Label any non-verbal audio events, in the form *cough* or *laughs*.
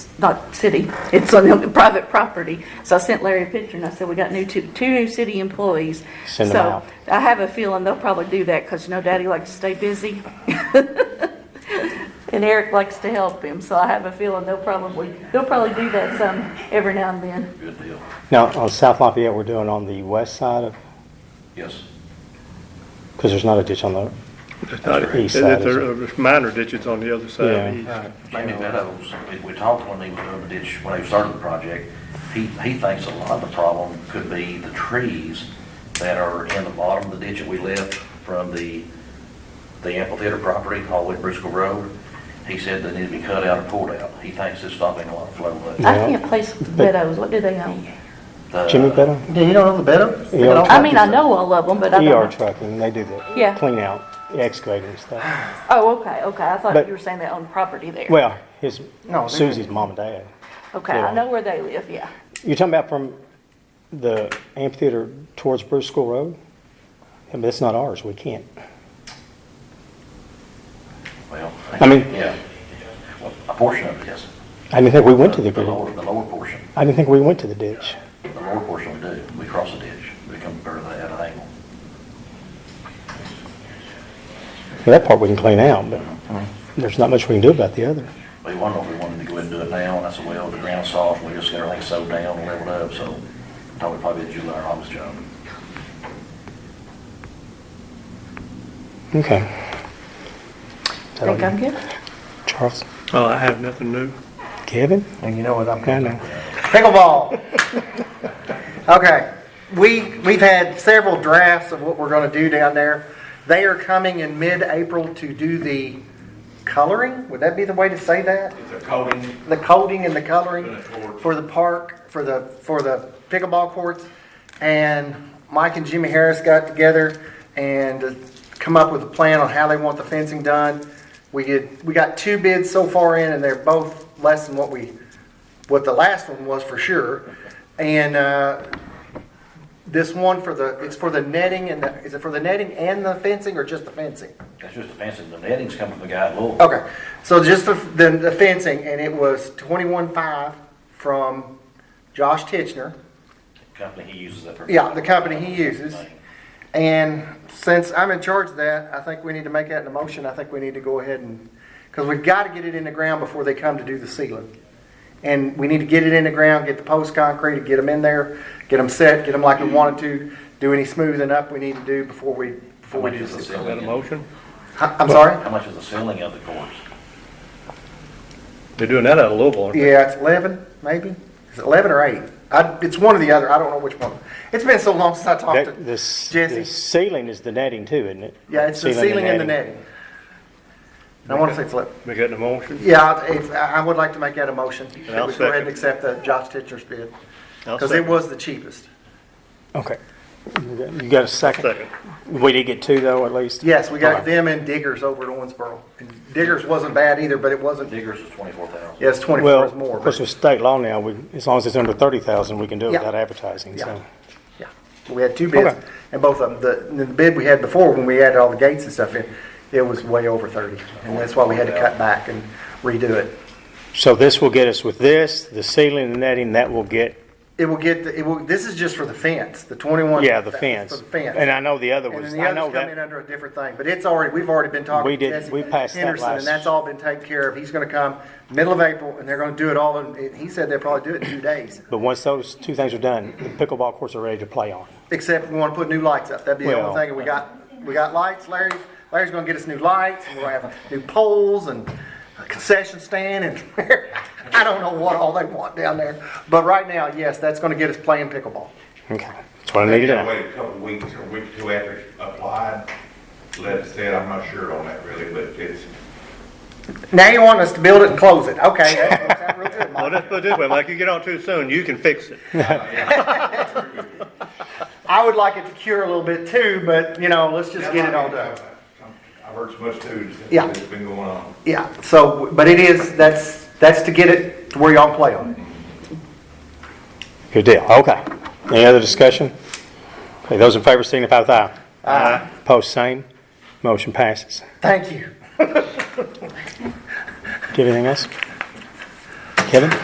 not city, it's on the private property. So I sent Larry a picture and I said, we got new, two, two new city employees. Send 'em out. So I have a feeling they'll probably do that because, you know, daddy likes to stay busy. *laughs* And Eric likes to help him, so I have a feeling they'll probably, they'll probably do that some every now and then. Good deal. Now, on South Lafayette, we're doing on the west side of, Yes. because there's not a ditch on the, It's not- East It's side, it's a it's minor ditch, it's on the other Yeah. side. east. Maybe that was, uh, we, we talked when he was doing the ditch, uh, when he started the project, he, he thinks a lot of the problem could be the trees that are in the bottom of the ditch that we left from the, the amphitheater property, all the way to Briscoe Road. He said they need to be cut out or pulled out. He thinks it's stopping a lot of flow. but uh, I Yeah. can't place the Beddoes, what do they own? the- Jimmy Better? E Yeah, you don't know the better? Yeah. They don't I mean, I like you. know all of them, but I don't ER know. trucking, they do the Yeah. clean out, excavating and stuff. Oh, okay, okay, I thought But- you were saying they own property there. Well, his, No, they're- Susie's mom and dad. Okay, yeah. I know where they live, yeah. You're talking about from the amphitheater towards Bruce School Road? Yeah, But it's not ours, we can't. Well. I mean- Yeah. Well, A portion of it, yes. I didn't think we went to the The ditch. lower, the lower portion, I didn't think we went to the ditch. the lower portion we do. We cross the ditch, we come to that angle. Well, That part we can clean out, but there's not much we can do about the other. We wondered if we wanted to go ahead and do it now, and I said, well, the ground's soft, we just got everything sowed down and leveled up, so thought it'd probably be a July or August job. Okay. Is that all Think I'm you- good? Charles? Oh, I have nothing new. Kevin? And you know what I'm I going know. Pickleball. Okay, we, we've had several drafts of what we're gonna do down there. They are coming in mid-April to do the coloring, would that be the way to say that? The coating and the coloring for the park, for the, for the pickleball courts. And Mike and Jimmy Harris got together and come up with a plan on how they want the fencing done. We get, we got two bids so far in and they're both less than what we what the last one was for sure. And uh, this one for the, it's for the netting and the, is it for the netting and the fencing or just the fencing? That's just the fencing, the netting's coming from the guy at Lowell. Okay, so just the, the the fencing and it was twenty-one five from Josh Titchener. Company he uses that for. Yeah, the company he uses. And since I'm in charge of that, I think we need to make that in a motion. I think we need to go ahead and, because we've got to get it in the ground before they come to do the ceiling. And we need to get it in the ground, get the post concrete, get them in there, get them set, get them like we wanted to, do any smoothing up we need to do before we, How before we much do is the this. Is that a ceiling? in- motion? Huh, I'm sorry? How much is the ceiling of the course? They're doing that out of Louisville, aren't they? Yeah, it's eleven, maybe? Is it eleven or eight? I, it's one or the other. I don't know which one. It's been so long since I talked That, to this, Jesse. the ceiling is the netting too, isn't it? Yeah, it's the ceiling and the netting. I want to say it's eleven. We got a motion? Yeah, if, I I would like to make that a motion, that I'll we go ahead and second. accept the Josh Titcher's bid, I'll because it second. was the cheapest. Okay. You got- You got a second? Second. We did get two though, at least? Yes, we got Okay. them and Diggers over at Owensboro. And Diggers wasn't bad either, but it wasn't, Diggers is twenty-four thousand. yes, Well, twenty-four is more. of course, but- with state law now, we, as long as it's under thirty thousand, we can do it Yeah. without advertising, Yeah. so. Yeah, So we had two bids, Okay. and both of them, the, the bid we had before, when we had all the gates and stuff in, it was way over thirty, and that's why we had to cut back and redo it. So this will get us with this, the ceiling and the netting, that will get, It will get, the- it will, this is just for the fence, the twenty-one. yeah, the for fence. the fence. And I know the other And was, then I the know others come in that, under a different thing, but it's already, we've already been talking. We to did- Jesse we passed that Henderson, last- And that's all been taken care of. He's gonna come middle of April, and they're gonna do it all, in- and he said they'll probably do it in two days. but once those two things are done, the pickleball courts are ready to play on. Except we wanna put new lights up. That'd be the Well- only thing, and we got, we got lights. Larry, Larry's gonna get us new lights, and we'll have new poles and a concession stand, and *laughs* I don't know what all they want down there. But right now, yes, that's gonna get us playing pickleball. Okay, that's what I needed to know. Wait a couple weeks or a week or two after it's applied, let it sit, I'm not sure on that really, but it's, Now you want us to build it and close it. *laughs* Okay, that works out real good, Mike. Well, let's put it this way, Mike, you get on too soon, you can fix it. I would like it to cure a little bit too, but you know, let's just get it all done. I've heard so much too, Yeah. since it's been going on. Yeah, so, but it is, that's, that's to get it to where y'all play on it. Good deal, okay. Any other discussion? Okay, those in favor signify with aye. Aye. Post same, motion passes. Thank you. Do you have anything else? Kevin?